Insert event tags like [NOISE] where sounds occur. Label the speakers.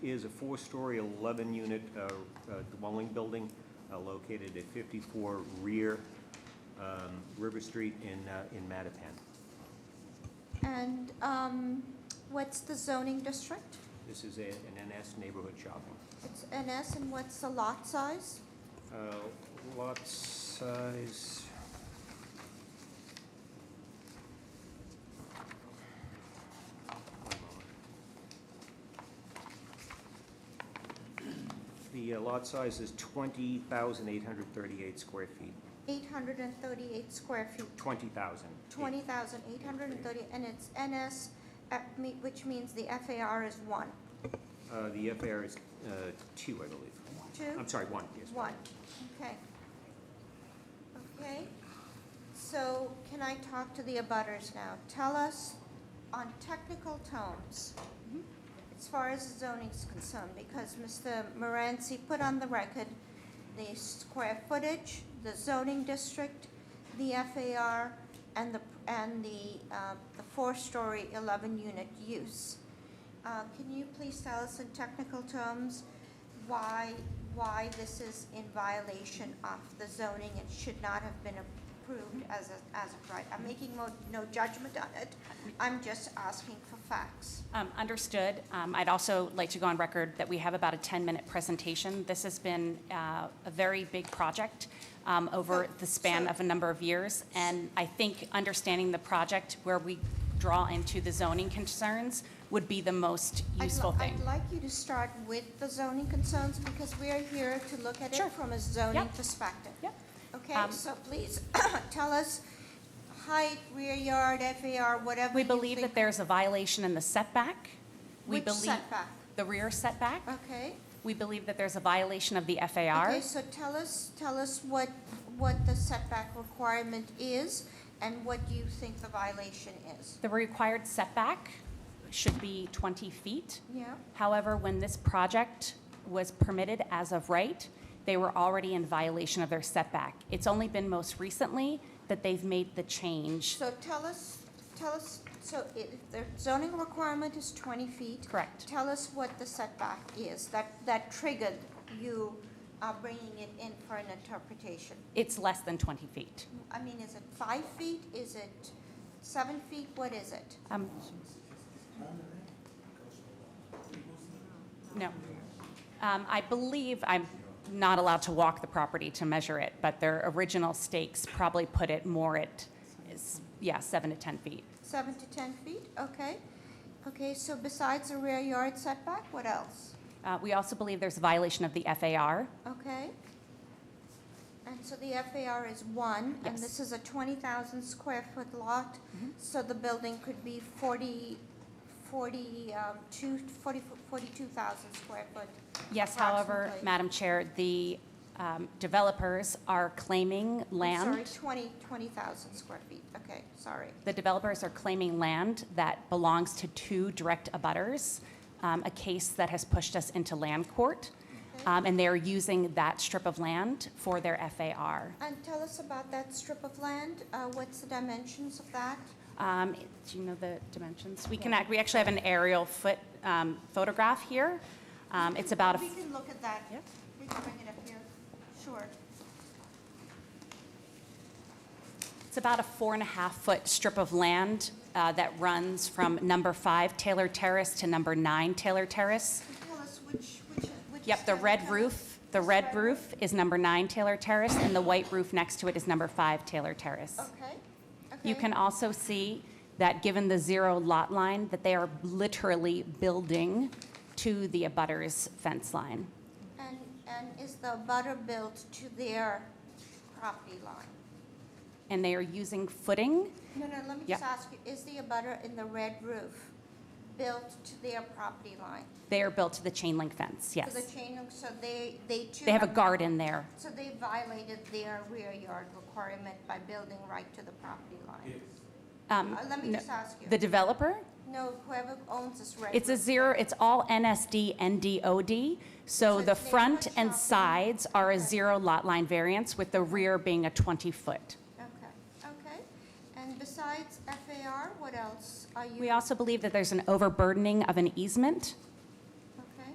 Speaker 1: is a four-story, 11-unit uh, uh, dwelling building uh, located at 54 rear um, River Street in, uh, in Mattapan.
Speaker 2: And um, what's the zoning district?
Speaker 1: This is a- an NS neighborhood shopping.
Speaker 2: It's NS, and what's the lot size?
Speaker 1: Uh, Lot size... The uh, lot size is 20,838 square feet.
Speaker 2: 838 square feet,
Speaker 1: 20,000.
Speaker 2: 20,830, and it's NS, uh, me- which means the FAR is 1,
Speaker 1: Uh, The FAR is uh, 2, I believe.
Speaker 2: 2?
Speaker 1: I'm sorry, 1, yes.
Speaker 2: 1, okay. Okay, so can I talk to the abutters now? Tell us on technical tones, as far as the zoning is concerned, because Mr. Moranci put on the record the square footage, the zoning district, the FAR, and the, and the, uh, the four-story, eleven-unit use. Uh, can you please tell us in technical terms why, why this is in violation of the zoning and should not have been approved as a, as a right? I'm making no, no judgment on it, I'm just asking for facts.
Speaker 3: Um, Understood. Um, I'd also like to go on record that we have about a 10-minute presentation. This has been uh, a very big project um,
Speaker 2: Oh,
Speaker 3: over the span of a number of years, and I think understanding the project where we draw into the zoning concerns would be the most
Speaker 2: I'd
Speaker 3: useful
Speaker 2: li-
Speaker 3: thing.
Speaker 2: I'd like you to start with the zoning concerns, because we are here to look at
Speaker 3: Sure.
Speaker 2: it from a zoning
Speaker 3: Yep.
Speaker 2: perspective.
Speaker 3: Yep.
Speaker 2: Okay,
Speaker 3: Um,
Speaker 2: so please, [COUGHS] tell us height, rear yard, FAR, whatever
Speaker 3: We
Speaker 2: you
Speaker 3: believe that
Speaker 2: think-
Speaker 3: there's a violation in the setback. We
Speaker 2: Which
Speaker 3: believe-
Speaker 2: setback?
Speaker 3: The rear setback.
Speaker 2: Okay.
Speaker 3: We believe that there's a violation of the FAR.
Speaker 2: Okay, so tell us, tell us what, what the setback requirement is and what you think the violation is.
Speaker 3: The required setback should be 20 feet.
Speaker 2: Yeah.
Speaker 3: However, when this project was permitted as of right, they were already in violation of their setback. It's only been most recently that they've made the change.
Speaker 2: So tell us, tell us, so if the zoning requirement is twenty feet.
Speaker 3: Correct.
Speaker 2: Tell us what the setback is that, that triggered you uh, bringing it in for an interpretation.
Speaker 3: It's less than 20 feet.
Speaker 2: I mean, is it five feet? Is it seven feet? What is it?
Speaker 3: Um, No. Um, I believe, I'm not allowed to walk the property to measure it, but their original stakes probably put it more at, is- yeah, seven to 10 feet.
Speaker 2: Seven to ten feet? Okay. Okay, so besides the rear yard setback, what else?
Speaker 3: Uh, We also believe there's a violation of the FAR.
Speaker 2: Okay. And so the FAR is one, and
Speaker 3: Yes. Mm-hmm.
Speaker 2: this is a twenty thousand square foot lot, so the building could be forty, forty, um, two, forty, forty-two thousand square foot.
Speaker 3: Yes, however,
Speaker 2: approximately.
Speaker 3: Madam Chair, the um, developers are claiming
Speaker 2: I'm
Speaker 3: land.
Speaker 2: Sorry, twenty, twenty thousand square feet, okay, sorry.
Speaker 3: The developers are claiming land that belongs to two direct abutters, um, a case that has pushed us into land court, um, and they are using that strip of land for their FAR.
Speaker 2: And tell us about that strip of land, uh, what's the dimensions of that?
Speaker 3: Um, Do you know the dimensions? We can, act- we actually have an aerial foot um, photograph here. Um, It's about, a
Speaker 2: We can look at that.
Speaker 3: Yep.
Speaker 2: We can bring it up here, sure.
Speaker 3: It's about a four and a half foot strip of land uh, that runs from number five Taylor Terrace to number nine Taylor Terrace.
Speaker 2: So Tell us which, which, which.
Speaker 3: Yep, the
Speaker 2: is-
Speaker 3: red
Speaker 2: tell us-
Speaker 3: roof, the
Speaker 2: this
Speaker 3: red roof is number nine Taylor Terrace, and the white roof next to it is number five Taylor Terrace.
Speaker 2: Okay, okay.
Speaker 3: You can also see that given the zero lot line, that they are literally building to the abutter's fence line.
Speaker 2: And, and is the butter built to their property line?
Speaker 3: And they are using footing,
Speaker 2: No, no, let me
Speaker 3: Yeah.
Speaker 2: just ask you, is the abutter in the red roof built to their property line?
Speaker 3: they are built to the chain link
Speaker 2: To
Speaker 3: fence,
Speaker 2: the
Speaker 3: yes.
Speaker 2: chain, link, so they, they too.
Speaker 3: They have a garden there.
Speaker 2: So they violated their rear yard requirement by building right to the property line?
Speaker 3: Um,
Speaker 2: Uh, Let me
Speaker 3: no-
Speaker 2: just ask
Speaker 3: The
Speaker 2: you,
Speaker 3: developer,
Speaker 2: no, whoever owns this red.
Speaker 3: It's a
Speaker 2: roof,
Speaker 3: zero, it's all NSD and DOD, so
Speaker 2: it's
Speaker 3: the
Speaker 2: neighborhood
Speaker 3: front and
Speaker 2: shopping.
Speaker 3: sides are a
Speaker 2: Okay.
Speaker 3: zero lot line variance, with the rear being a 20-foot.
Speaker 2: Okay, okay. And besides FAR, what else are you?
Speaker 3: We also believe that there's an overburdening of an easement